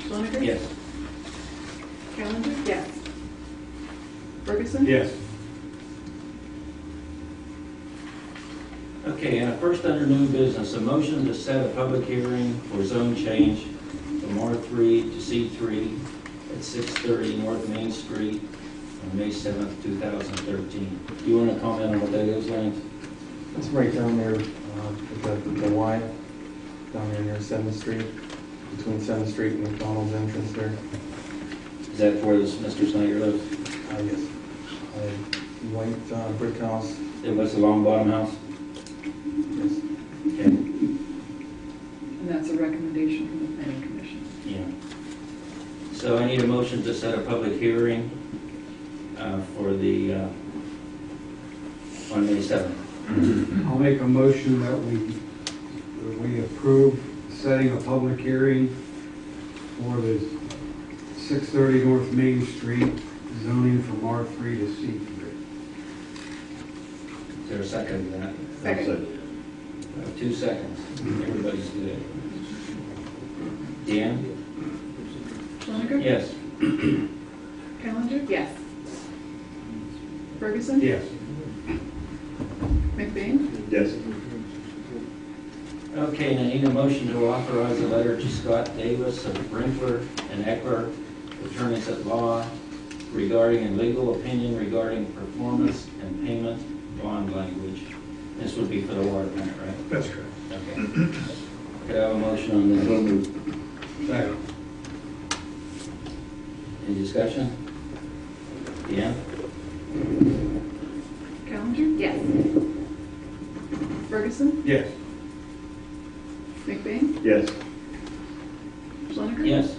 Swanager? Yes. Callender? Yes. Ferguson? Okay, and first under new business, a motion to set a public hearing for zone change from R3 to C3 at 630 North Main Street on May 7th, 2013. You want to comment on what that is, Lance? It's right down there, uh, with the, with the Y, down there near Seventh Street, between Seventh Street and McDonald's entrance there. Is that where this Mr. Snyder lives? Uh, yes. A white, uh, brick house, It was the long bottom house? yes. Okay. And that's a recommendation from the planning commission. Yeah. So I need a motion to set a public hearing uh, for the, uh, on May 7th. I'll make a motion that we, that we approve setting a public hearing for the 630 North Main Street zoning from R3 to C3. Is there a second to that? Second. Uh, Two seconds. Everybody's good. Dan? Swanager? Yes. Callender? Yes. Ferguson? Yes. McBain? Yes. Okay, now I need a motion to authorize a letter to Scott Davis of Brinkler and Eckler, attorneys at law, regarding a legal opinion regarding performance and payment bond language. This would be for the water plant, right? That's correct. Okay. Could I have a motion on that? Second. Any discussion? Yeah? Callender? Yes. Ferguson? Yes. McBain? Yes. Swanager? Yes.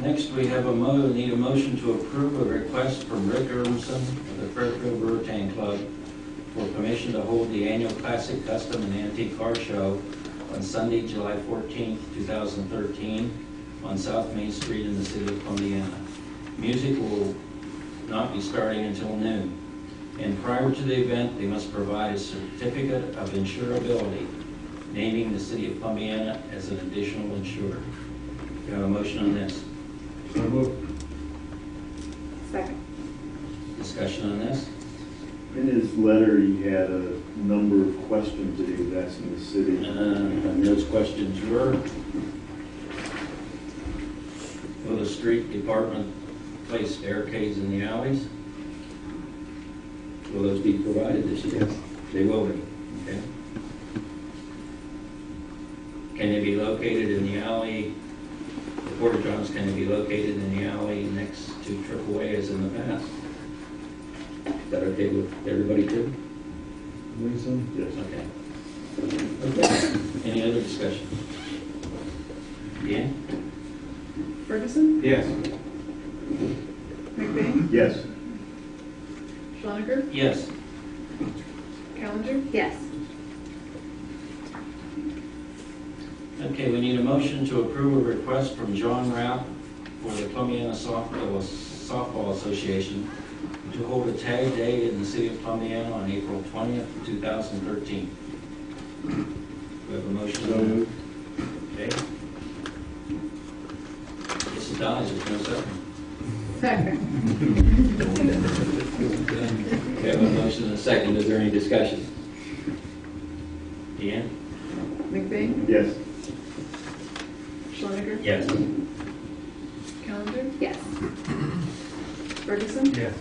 Next, we have a mo, need a motion to approve a request from Rick Urbanson of the Fairfield Brewer Tank Club for permission to hold the annual Classic Custom and Antique Car Show on Sunday, July 14th, 2013, on South Main Street in the city of Columbia. Music will not be starting until noon. And prior to the event, they must provide a certificate of insurability naming the city of Pombiana as an additional insurer. Do I have a motion on this? So moved. Second. Discussion on this? In his letter, he had a number of questions that he was asking the Uh, city. And those questions were, will the street department place barricades in the alleys? Will those be provided this year? Yes. They will be, okay. Can they be located in the alley? The porta johns can they be located in the alley next to triple A as in the past? Is that okay with everybody too? Reason? Yes. Okay. Okay. Any other discussion? Dan? Ferguson? Yes. McBain? Yes. Swanager? Yes. Callender? Yes. Okay, we need a motion to approve a request from John Rapp for the Plumiana Softball Softball Association to hold a tag day in the city of Plumiana on April 20th, 2013. We have a motion. So moved. Okay. This is Don's, there's no second. Second. We have a motion and a second, is there any discussion? Deanne? McBain? Yes. Swanager? Yes. Callender? Yes. Ferguson? Yes.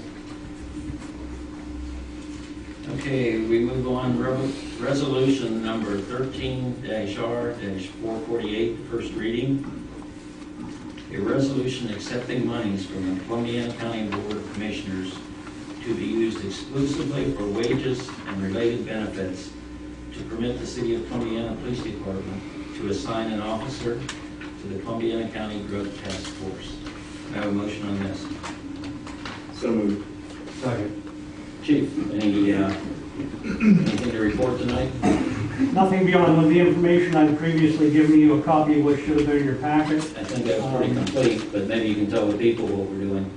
Okay, we move on, Re- resolution number thirteen R four forty-eight, first reading. A resolution accepting monies from the Columbia County Board of Commissioners to be used exclusively for wages and related benefits to permit the city of Columbia Police Department to assign an officer to the Columbia County Drug Task Force. I have a motion on this. So moved. Second. Chief, any, uh, anything to report tonight? Nothing beyond the information I've previously given you, a copy of which should have been in your packet. I think that's pretty complete, but maybe you can tell the people what we're doing.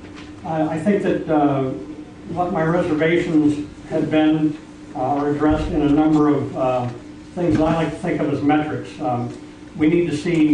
I, I think that uh, what my reservations had been uh, are addressed in a number of uh, things I like to think of as metrics. Um, We need to see